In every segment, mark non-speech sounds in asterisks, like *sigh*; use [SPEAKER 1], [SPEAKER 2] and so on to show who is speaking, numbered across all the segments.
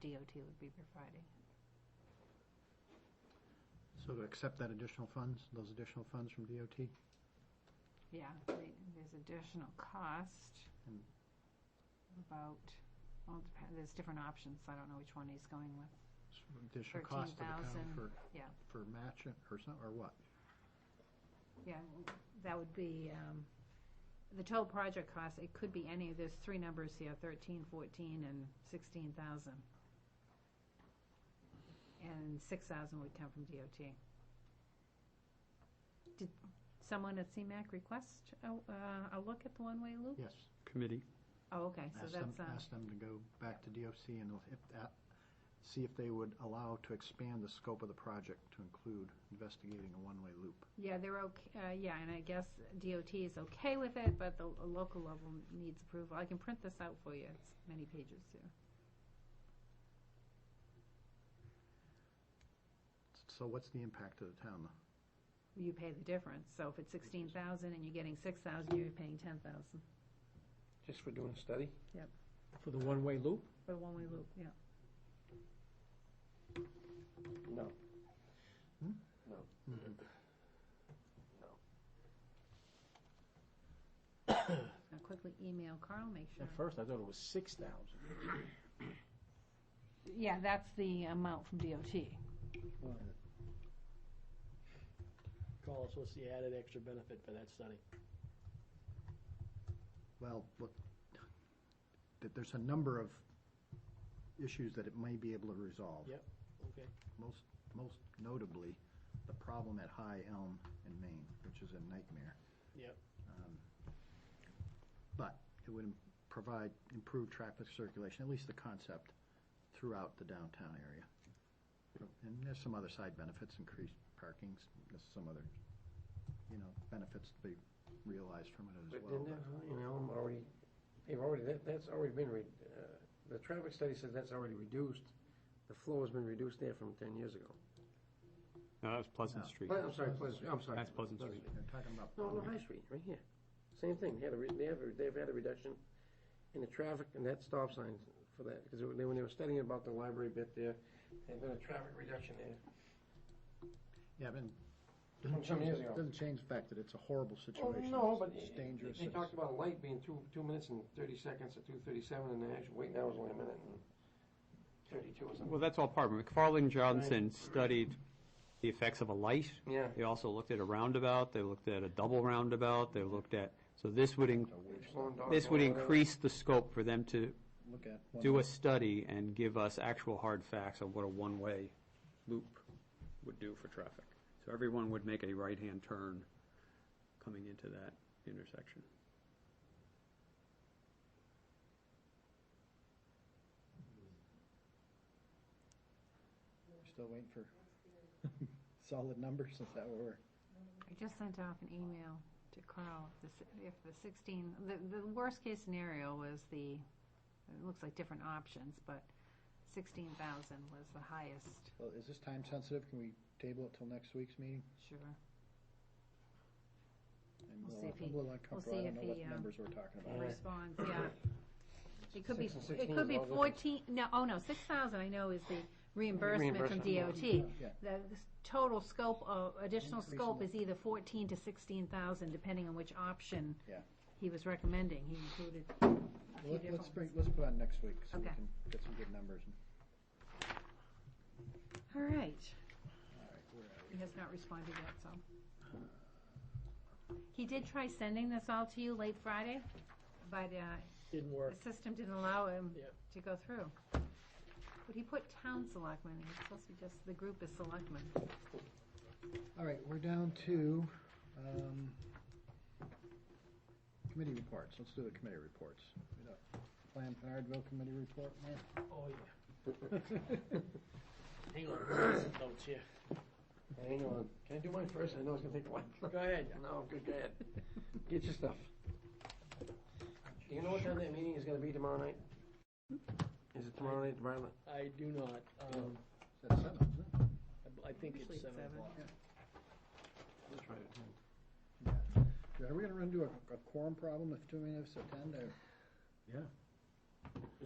[SPEAKER 1] DOT would be providing.
[SPEAKER 2] So to accept that additional funds, those additional funds from DOT?
[SPEAKER 1] Yeah, they- there's additional cost,
[SPEAKER 2] Hmm.
[SPEAKER 1] about, well, it depen- there's different options, I don't know which one he's going with.
[SPEAKER 2] Additional cost to the county
[SPEAKER 1] 13,000,
[SPEAKER 2] for,
[SPEAKER 1] yeah.
[SPEAKER 2] for matching or some, or what?
[SPEAKER 1] Yeah, that would be, um, the total project cost, it could be any, there's three numbers here, thirteen, fourteen, and sixteen thousand. And six thousand would come from DOT. Did someone at CMAC request a, uh, a look at the one-way loop?
[SPEAKER 2] Yes.
[SPEAKER 3] committee.
[SPEAKER 1] Oh, okay, so
[SPEAKER 2] Ask them,
[SPEAKER 1] that's, uh,
[SPEAKER 2] ask them to go back to DOC and if that, see if they would allow to expand the scope of the project to include investigating a one-way loop.
[SPEAKER 1] yeah, they're okay, uh, yeah, and I guess DOT is okay with it, but the l- local level needs approval. I can print this out for you, it's many pages here.
[SPEAKER 2] So what's the impact to the town?
[SPEAKER 1] you pay the difference. So if it's sixteen thousand and you're getting six thousand, you're paying ten thousand
[SPEAKER 4] Just for doing a study?
[SPEAKER 1] Yep.
[SPEAKER 4] For the one-way loop?
[SPEAKER 1] for a one-way loop, yeah.
[SPEAKER 4] No.
[SPEAKER 2] Hmm?
[SPEAKER 4] No.
[SPEAKER 2] Mhm.
[SPEAKER 1] Now quickly email Carl, make sure.
[SPEAKER 4] At first, I thought it was six thousand.
[SPEAKER 1] Yeah, that's the amount from DOT.
[SPEAKER 5] Call us, what's the added extra benefit for that study?
[SPEAKER 2] Well, look, that there's a number of issues that it may be able to resolve.
[SPEAKER 5] Yep. Okay.
[SPEAKER 2] Most, most notably, the problem at High Elm in Maine, which is a nightmare.
[SPEAKER 5] Yep.
[SPEAKER 2] Um, But it would im- provide improved traffic circulation, at least the concept, throughout the downtown area. And there's some other side benefits, increased parkings, there's some other, you know, benefits to be realized from it as
[SPEAKER 4] But
[SPEAKER 2] well.
[SPEAKER 4] then,
[SPEAKER 2] but-
[SPEAKER 4] that, you know, I'm already, they've already, that, that's already been, re- uh, the traffic study says that's already reduced. The flow has been reduced there from ten years ago.
[SPEAKER 3] No, that was Pleasant
[SPEAKER 2] No.
[SPEAKER 3] Street.
[SPEAKER 4] Ple- I'm sorry, Pleasant, Street, I'm sorry.
[SPEAKER 3] That's Pleasant Street.
[SPEAKER 2] They're talking about.
[SPEAKER 4] No, no, High Street, right here. Same thing, they had a, re- they have, a- they've had a reduction in the traffic and that stop sign for that, because they, when they were studying about the library bit there, there's been a traffic reduction there.
[SPEAKER 2] Yeah, but.
[SPEAKER 4] From some years ago.
[SPEAKER 2] Doesn't change the fact that it's a horrible
[SPEAKER 4] Oh,
[SPEAKER 2] situation.
[SPEAKER 4] no, but
[SPEAKER 2] It's
[SPEAKER 4] it-
[SPEAKER 2] dangerous.
[SPEAKER 4] They
[SPEAKER 2] it's-
[SPEAKER 4] talked about a light being two, two minutes and thirty seconds or two thirty-seven, and the actual wait now is only a minute and thirty-two or
[SPEAKER 3] Well,
[SPEAKER 4] something.
[SPEAKER 3] that's all part of it. McFarland Johnson studied the effects of a light.
[SPEAKER 4] Yeah.
[SPEAKER 3] They also looked at a roundabout, they looked at a double roundabout, they looked at, so this would, in-
[SPEAKER 4] Slowing down
[SPEAKER 3] this would
[SPEAKER 4] for a while.
[SPEAKER 3] increase the scope for them to
[SPEAKER 2] Look at. one-
[SPEAKER 3] do a study and give us actual hard facts on what a one-way loop would do for traffic. So everyone would make a right-hand turn coming into that intersection.
[SPEAKER 2] Still waiting for *laughs* solid numbers, is that what we're?
[SPEAKER 1] I just sent off an email to Carl, if the si- if the sixteen, the, the worst case scenario was the, it looks like different options, but sixteen thousand was the highest,
[SPEAKER 2] Well, is this time sensitive? Can we table it till next week's meeting?
[SPEAKER 1] sure.
[SPEAKER 2] I'm a
[SPEAKER 1] We'll see if
[SPEAKER 2] little-
[SPEAKER 1] he-
[SPEAKER 2] I'm a little uncomfortable.
[SPEAKER 1] see
[SPEAKER 2] I don't
[SPEAKER 1] if
[SPEAKER 2] know what
[SPEAKER 1] he,
[SPEAKER 2] the
[SPEAKER 1] um,
[SPEAKER 2] numbers we're talking about.
[SPEAKER 1] Response, yeah. It could be,
[SPEAKER 4] Six and
[SPEAKER 1] it
[SPEAKER 4] 16
[SPEAKER 1] could
[SPEAKER 4] is
[SPEAKER 1] be
[SPEAKER 4] all different.
[SPEAKER 1] fourteen, no, oh no, six thousand I know is the reimbursement from
[SPEAKER 4] Reimbursement,
[SPEAKER 1] DOT.
[SPEAKER 2] Yeah.
[SPEAKER 1] The total scope of, additional
[SPEAKER 2] Increase in
[SPEAKER 1] scope
[SPEAKER 2] the-
[SPEAKER 1] is either fourteen to sixteen thousand, depending on which option
[SPEAKER 2] Yeah.
[SPEAKER 1] he was recommending, he included a
[SPEAKER 2] Well,
[SPEAKER 1] few
[SPEAKER 2] let- Let's
[SPEAKER 1] different
[SPEAKER 2] bring,
[SPEAKER 1] ones.
[SPEAKER 2] let's put on next week so we
[SPEAKER 1] Okay.
[SPEAKER 2] can get some good numbers. and-
[SPEAKER 1] All right,
[SPEAKER 2] All right, we're out.
[SPEAKER 1] he has not responded yet, so. He did try sending this all to you late Friday, but, uh,
[SPEAKER 5] Didn't work.
[SPEAKER 1] The system didn't allow him
[SPEAKER 5] Yep.
[SPEAKER 1] to go through. But he put town selectmen, and it's supposed to be just, the group is selectmen.
[SPEAKER 2] All right, we're down to um, committee reports. Let's do the committee reports. We got Plan Pinardville Committee Report, Mark?
[SPEAKER 5] Oh, yeah. *laughs* Hang on, I got some notes
[SPEAKER 4] *laughs*
[SPEAKER 5] here.
[SPEAKER 4] Hang on, can I do mine first? I know it's gonna take a while.
[SPEAKER 5] Go ahead.
[SPEAKER 4] No, good,
[SPEAKER 3] *laughs*
[SPEAKER 4] go ahead. Get your stuff. Do you know what time that meeting is gonna be tomorrow night? Is it tomorrow night, Violet?
[SPEAKER 5] I do not, um,
[SPEAKER 2] Is that seven, isn't it?
[SPEAKER 5] I- I think
[SPEAKER 1] Usually
[SPEAKER 5] it's
[SPEAKER 1] it's
[SPEAKER 5] seven
[SPEAKER 1] seven.
[SPEAKER 5] o'clock.
[SPEAKER 4] Let's try it.
[SPEAKER 2] Yeah, Are we gonna run into a a quorum problem if too many of us attend? or-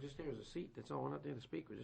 [SPEAKER 4] Just there was a seat, that's all, we're not there to speak, we're just